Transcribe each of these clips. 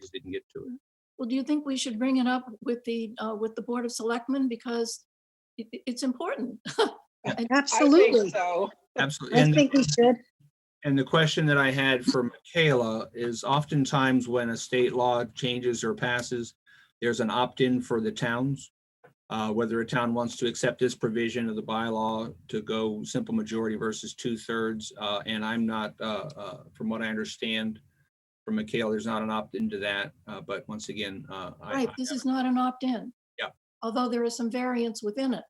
just didn't get to it. Well, do you think we should bring it up with the, uh, with the Board of Selectmen? Because it, it- it's important. I- I think Absolutely. So, Absolutely. I And the- think we should. And the question that I had for Michaela is oftentimes when a state law changes or passes, there's an opt-in for the towns. Uh, whether a town wants to accept this provision of the bylaw to go simple majority versus two-thirds. Uh, and I'm not, uh, uh, from what I understand from Michaela, there's not an opt-in to that. Uh, but once again, uh, I, Right, this is not an opt-in. Yeah. Although there are some variants within it.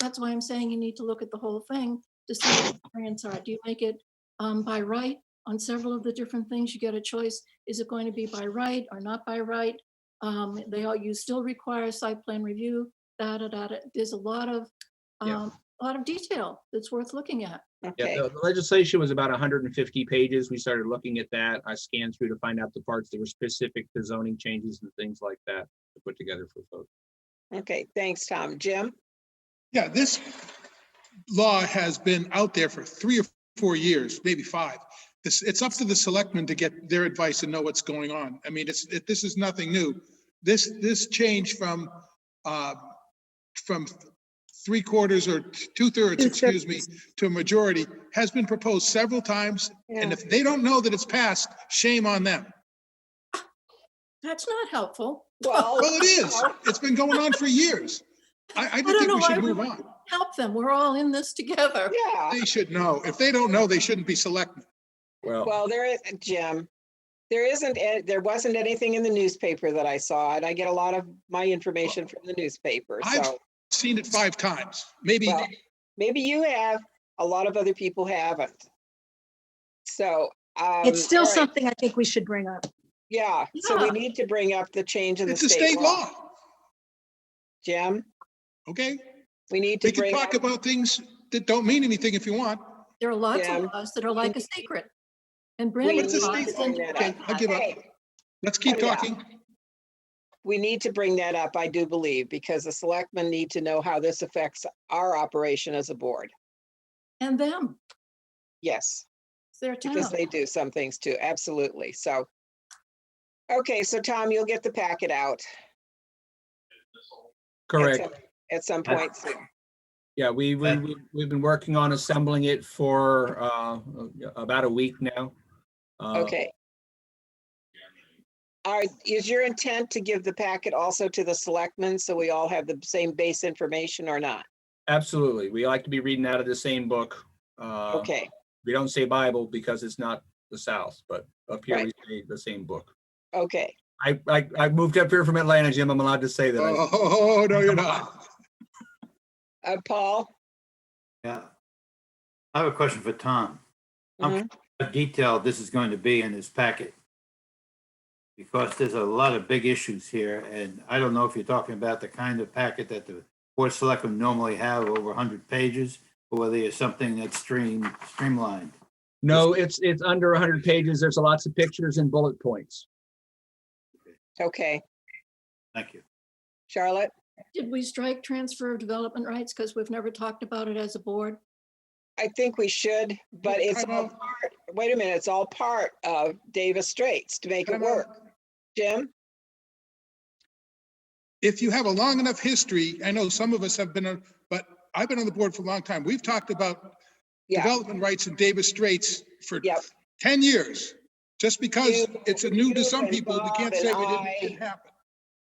That's why I'm saying you need to look at the whole thing to see what the variants are. Do you make it um, by right? On several of the different things, you get a choice. Is it going to be by right or not by right? Um, They all, you still require site plan review, da, da, da, da. There's a lot of, Yeah. um, a lot of detail that's worth looking at. okay. Yeah, the the legislation was about hundred and fifty pages. We started looking at that. I scanned through to find out the parts that were specific to zoning changes and things like that to put together for folks. Okay, thanks, Tom. Jim? Yeah, this law has been out there for three or four years, maybe five. It's, it's up to the selectmen to get their advice and know what's going on. I mean, it's, it- this is nothing new. This, this change from, uh, from three quarters or two thirds, excuse me, to a majority has been proposed several times. And Yeah. if they don't know that it's passed, shame on them. That's not helpful. Well, Well, it is. It's been going on for years. I, I don't think know we why should we move would- on. Help them. We're all in this together. yeah, They should know. If they don't know, they shouldn't be selectmen. Well, well, there is, Jim, there isn't, a- there wasn't anything in the newspaper that I saw, and I get a lot of my information from the newspaper, I've- so. seen it five times, maybe. Well, maybe you have, a lot of other people haven't. So. um, It's still all right, something I think we should bring up. Yeah, so we Yeah. need to bring up the change in the It's a state law. Jim, okay? we need to We can bring up, talk about things that don't mean anything if you want. There are lots Yeah. of laws that are like a secret. And we Brandon. What's the brought state this law? into- that Okay, up. I'll give up. Hey, Let's keep Oh, Yeah. talking. we need to bring that up, I do believe, because the selectmen need to know how this affects our operation as a board. And them, Yes, it's their because town. they do some things too, absolutely, so. Okay, so Tom, you'll get the packet out. at correct. some- At some point soon. Yeah, we, we, we- we've been working on assembling it for, uh, about a week now. Uh, Okay. Are, is your intent to give the packet also to the selectmen so we all have the same base information or not? Absolutely. We like to be reading out of the same book. Uh, Okay, We don't say Bible because it's not the South, but up here we Right. say the same book. okay. I, I, I moved up here from Atlanta, Jim. I'm allowed to say that. I- Oh, no, you're not. Uh, Paul? Yeah. I have a question for Tom. I'm Mhm. How detailed this is going to be in this packet? Because there's a lot of big issues here, and I don't know if you're talking about the kind of packet that the board selectmen normally have over 100 pages, or whether it's something that's stream, streamlined. No, it's, it's under hundred pages. There's lots of pictures and bullet points. Okay, Thank you. Charlotte? Did we strike transfer of development rights? Because we've never talked about it as a board. I think we should, but it's Time all out. part, wait a minute, it's all part of Davis Straits to make it Time work. out. Jim? If you have a long enough history, I know some of us have been, on, but I've been on the board for a long time. We've talked about Yeah, development rights in Davis Straits for Yep. 10 years. Just because You- it's a new to you some and people, we Bob can't and say we didn't, I- it didn't happen.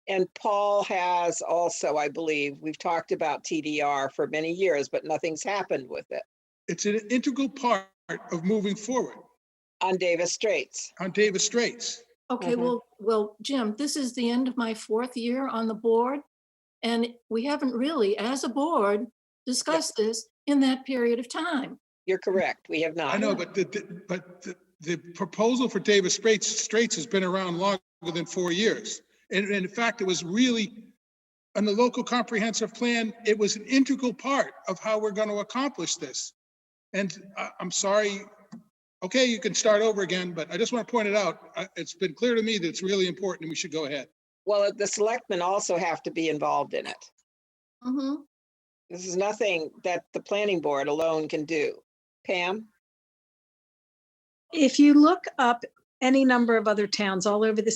and Paul has also, I believe, we've talked about TDR for many years, but nothing's happened with it It's an integral part of moving forward on Davis Straits. on Davis Straits. Okay, Mhm. Mm-hmm. well, well, Jim, this is the end of my fourth year on the board. And we haven't really, as a board, discussed this in that period of time. You're correct, we have not. I know, but the- the, but the- the proposal for Davis Straits, Straits has been around longer than four years. And and in fact, it was really, on the local comprehensive plan, it was an integral part of how we're going to accomplish this. And I, I'm sorry, okay, you can start over again, but I just want to point it out. I- It's been clear to me that it's really important and we should go ahead. Well, the selectmen also have to be involved in it. Mhm. This is nothing that the planning board alone can do. Pam? If you look up any number of other towns all over the